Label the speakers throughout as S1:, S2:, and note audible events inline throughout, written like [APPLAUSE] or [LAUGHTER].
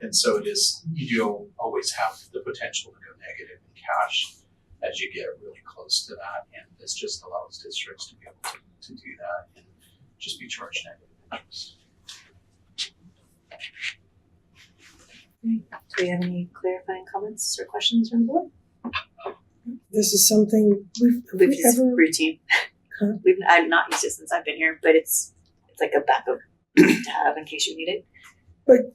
S1: And so it is, you do always have the potential to go negative in cash as you get really close to that. And this just allows districts to be able to, to do that and just be charged negative interest.
S2: Do we have any clarifying comments or questions from the board?
S3: This is something we've, have
S2: We've
S3: we
S2: just
S3: ever,
S2: routine.
S3: Huh?
S2: We've I've not used it since I've been here, but it's it's like a backup [CLEARS THROAT] to have in case you need it.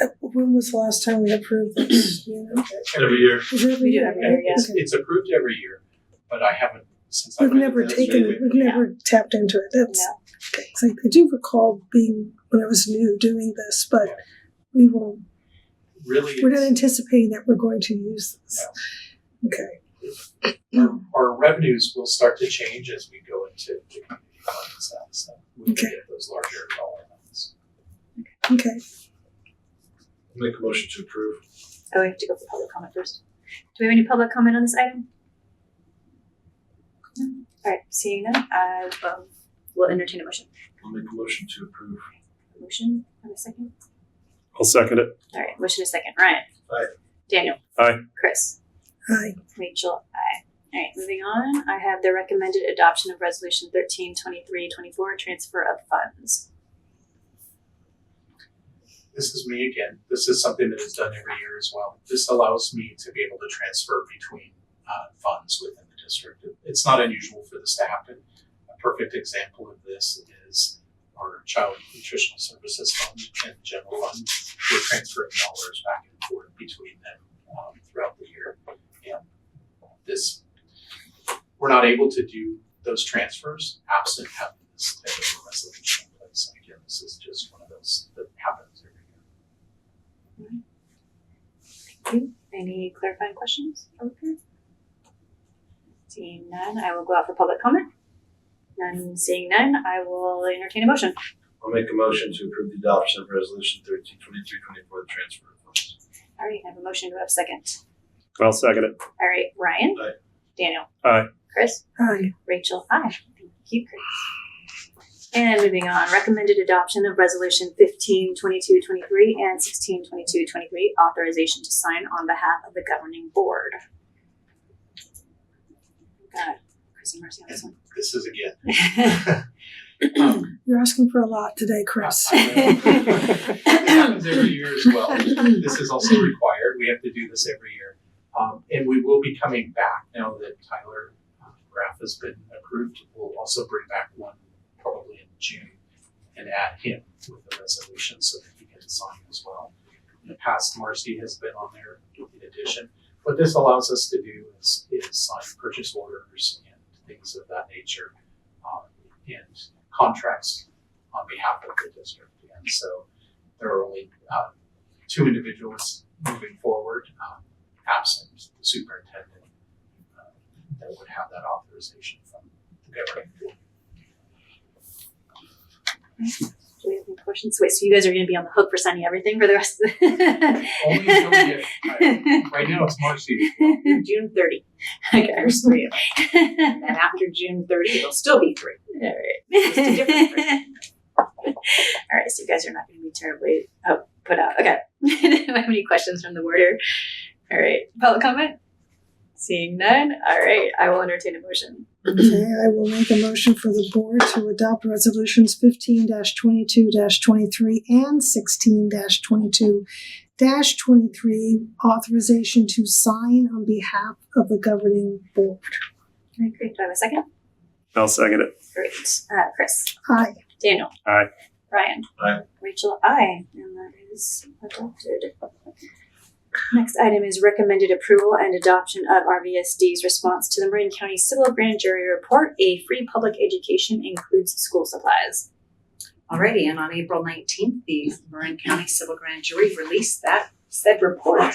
S3: uh, when was the last time we approved this, you
S2: [CLEARS THROAT]
S3: know?
S1: Every year.
S3: Was it every
S2: We do
S3: year?
S2: every year, yeah.
S1: It's,
S3: Okay.
S1: it's approved every year, but I haven't, since I've
S3: We've
S1: been
S3: never taken,
S1: administrative,
S3: it. we've never tapped into it, that's,
S2: No.
S3: it's like, I do recall being, when I was new, doing this, but we won't,
S1: Really,
S3: we're not
S1: it's-
S3: anticipating that we're going to use this. Okay,
S1: our, our revenues will start to change as we go into the community funds, and so we
S3: Okay.
S1: can get those larger dollar amounts.
S3: okay,
S4: Make a motion to approve.
S2: Oh, we have to go for public comment first. Do we have any public comment on this item? No? Alright, seeing none, I um will entertain a motion.
S4: I'll make a motion to approve.
S2: Motion, have a second?
S5: I'll second it.
S2: Alright, motion is second. Ryan.
S4: Aye.
S2: Daniel.
S5: Aye.
S2: Chris.
S3: hi,
S2: Rachel, aye. All right, moving on. I have the recommended adoption of resolution thirteen twenty-three twenty-four, transfer of funds.
S1: This is me again. This is something that is done every year as well. This allows me to be able to transfer between uh, funds within the district. It's not unusual for this to happen. A perfect example of this is our child nutritional services fund and general fund. We're transferring dollars back and forth between them um, throughout the year. And this, we're not able to do those transfers absent having this type of a resolution in place. And again, this is just one of those that happens every year.
S2: Any clarifying questions? Okay. Seeing none, I will go out for public comment. None, seeing none, I will entertain a motion.
S4: I'll make a motion to approve the adoption of resolution thirteen twenty-three twenty-four, the transfer of funds.
S2: All right, I have a motion to have a second.
S5: I'll second it.
S2: All right, Ryan.
S4: Aye.
S2: Daniel.
S5: Aye.
S2: Chris.
S3: hi,
S2: Rachel, aye. Thank you, Chris. And moving on, recommended adoption of resolution fifteen twenty-two twenty-three and sixteen twenty-two twenty-three, authorization to sign on behalf of the governing board. Got Chris and Marcy on this
S1: [LAUGHS] This is again. [COUGHS]
S2: one.
S1: um,
S3: you're asking for a lot today, Chris.
S1: It happens every year as well. This is also required. We have to do this every year. Um, and we will be coming back now that Tyler uh, Graff has been approved. We'll also bring back one probably in June and add him with the resolution so that he can sign as well. In the past, Marcy has been on there in addition. What this allows us to do is, is sign purchase orders and things of that nature um, and contracts on behalf of the district. And so there are only uh, two individuals moving forward, um, absent the superintendent, uh, that would have that authorization from the governing board.
S2: Do we have any questions? Wait, so you guys are gonna be on the hook for signing everything for the rest of the?
S1: Only until we get,
S2: [LAUGHS]
S1: I- right now it's Marcy.
S6: through June 30.
S2: Okay, there's three of [LAUGHS] them.
S6: And after June 30, it'll still be three.
S2: All
S6: Just a different
S2: right. [LAUGHS] All right, so you guys are not going to be terribly oh, put out. Okay. [LAUGHS] Do you have any questions from the boarder? All right. Public comment? Seeing none. All right. I will entertain a motion.
S3: Okay, I will make a motion for the board to adopt resolutions fifteen twenty-two twenty-three and sixteen twenty-two twenty-three, authorization to sign on behalf of the governing board.
S2: Okay, great. Do I have a second?
S5: I'll second it.
S2: Great. Uh, Chris.
S3: Aye.
S2: Daniel.
S5: Aye.
S2: Ryan.
S4: Aye.
S2: Rachel. Aye. And that is adopted. Next item is recommended approval and adoption of RVSD's response to the Marin County Civil Grand Jury Report. A free public education includes school supplies.
S6: Alrighty, and on April 19th, the Marin County Civil Grand Jury released that said report.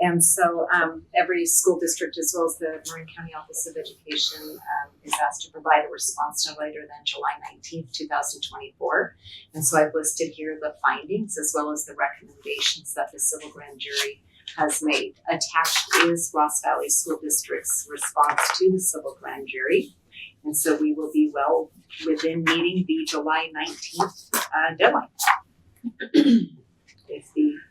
S6: And so um, every school district, as well as the Marin County Office of Education, um, is asked to provide a response no later than July 19th, 2024. And so I've listed here the findings as well as the recommendations that the Civil Grand Jury has made. Attached is Ross Valley School District's response to the Civil Grand Jury. And so we will be well within [CLEARS THROAT] meeting the July nineteenth uh deadline. If the